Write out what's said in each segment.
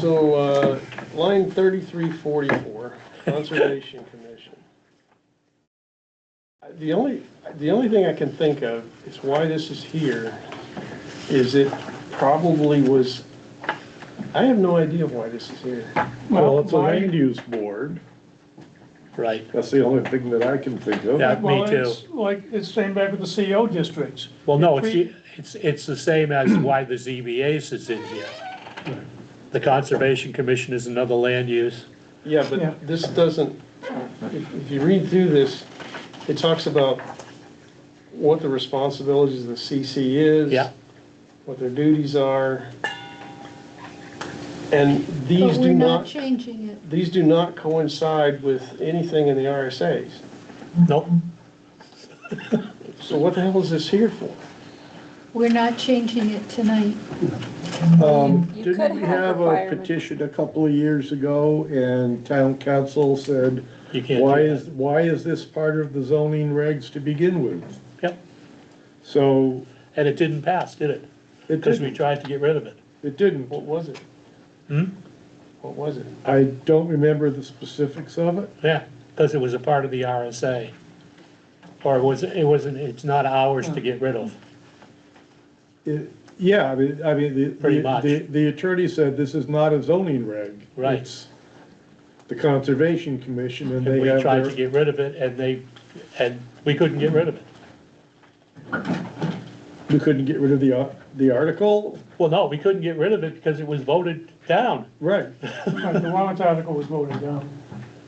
So, uh, line thirty-three forty-four, Conservation Commission. Uh, The only, the only thing I can think of is why this is here, is it probably was, I have no idea why this is here. Well, it's a Why- land use board. Right, That's the only thing that I can think of. yeah, me Well, too. it's Like, it's same back with the CO districts. Well, no, it's, we- the- it's, it's the same as why the ZBA sits in here. The Conservation Commission is another land use. Yeah, Yeah. but this doesn't, if if you read through this, it talks about what the responsibilities of the CC is. Yeah. What their duties are. And these But we're do not not, changing it. these do not coincide with anything in the RSAs. Nope, So what the hell is this here for? We're not changing it tonight. You could Didn't we have a requirements. petition a couple of years ago and town council said, you can't. do why that. is, why is this part of the zoning regs to begin with? Yep, So and it didn't pass, did it? it Because we didn't, tried to get rid of it. it didn't. What was it? Hmm? What was it? I don't remember the specifics of it. Yeah, because it was a part of the RSA. Or it was, it wasn't, it's not ours to get rid of. It, yeah, I mean, I mean, the, Pretty much. the, the attorney said this is not a zoning reg. Right. It's The Conservation Commission and And they we have tried to their, get rid of it and they, and we couldn't get rid of it. we couldn't get rid of the, ar- the article? Well, no, we couldn't get rid of it because it was voted down. Right. Like, the warrant article was voted down.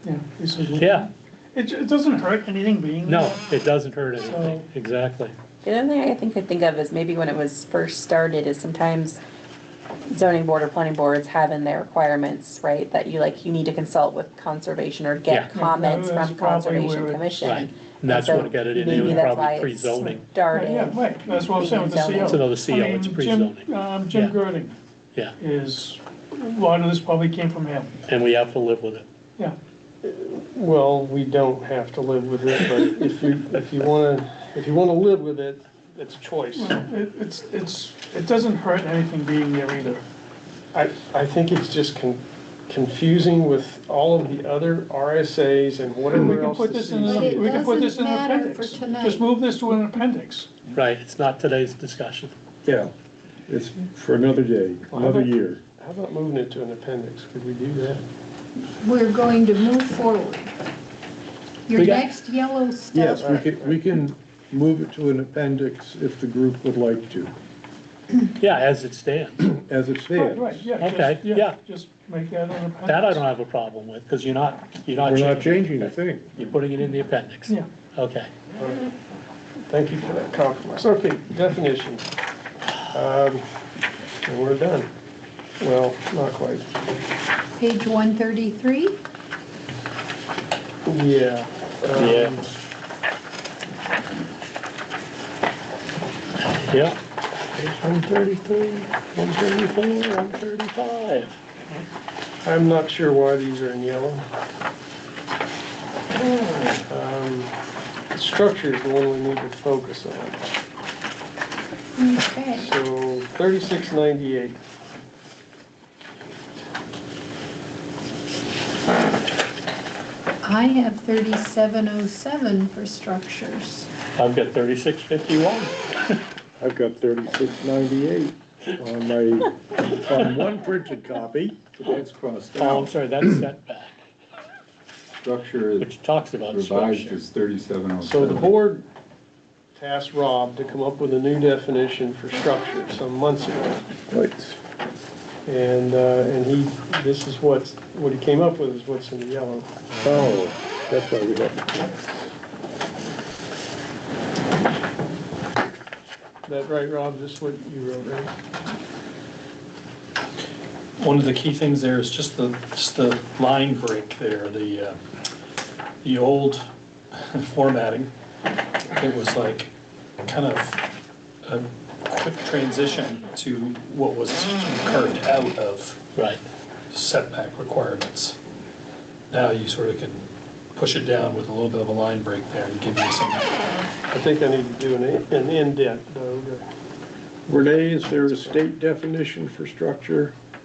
Yeah, this is. Yeah, It, it doesn't hurt anything being. no, it doesn't hurt anything, exactly. The only thing I think could think of is maybe when it was first started is sometimes zoning board or planning boards have in their requirements, right? That you like, you need to consult with conservation or Yeah. get Yeah, comments that's from probably conservation where it- commission. Right, and that's so what got it in, it maybe was that's why probably it's pre-zoning, Right, Yeah, Started, right, that's what I'm saying with the Being CO. zoned. It's another CO, I mean, it's Jim- pre-zoning. Um, Yeah. Jim Gerding yeah, is, a lot of this probably came from him, and we have to live with it. yeah. Well, we don't have to live with it, but if you, if you wanna, if you wanna live with it, it's a choice. It, it's, it's, it doesn't hurt anything being there either. I, I think it's just con- confusing with all of the other RSAs and We whatever can else. put the E this in, CC But a- it we can put this in an doesn't matter appendix. for tonight. Just move this to an appendix. Right, it's not today's discussion. Yeah, it's for another day, another year. How about moving it to an appendix? Could we do that? We're going to move forward. Your We got- next yellow stuff, Yes, we can, we can move it to an appendix if the group would like to, Yeah, as it stands. as it Right, stands. right, yeah. just- Okay, yeah. Just make that an appendix. That I don't have a problem with, because you're not, you're not We're changing. not changing a thing. You're putting it in the appendix. Yeah. Okay, Thank you for that compromise. Okay, definition. Um, And we're done. Well, not quite. page 133. Yeah. um, yeah. Yeah. One thirty-three, one thirty-four, one thirty-five. I'm not sure why these are in yellow. Um, Structure is the one we need to focus on. Okay. So thirty-six ninety-eight. I have 3707 for structures. I've got thirty-six fifty-one. I've got thirty-six ninety-eight on my, on one printed copy. That's crossed Oh, I'm out. sorry, that's setback, Structure is which talks about revised structure. is thirty-seven oh seven. So the board tasked Rob to come up with a new definition for structure some months ago. And, uh, and he, this is what, what he came up with is what's in the yellow. Oh, that's why we have, Is that right, Rob? This is what you wrote, right? One of the key things there is just the, just the line break there, the, uh, the old formatting. It was like kind of a quick transition to what was carved out of Right, setback requirements. Now you sort of can push it down with a little bit of a line break there and give you some I think I need to do an, an indent though. to- Renee, is there a state definition for structure?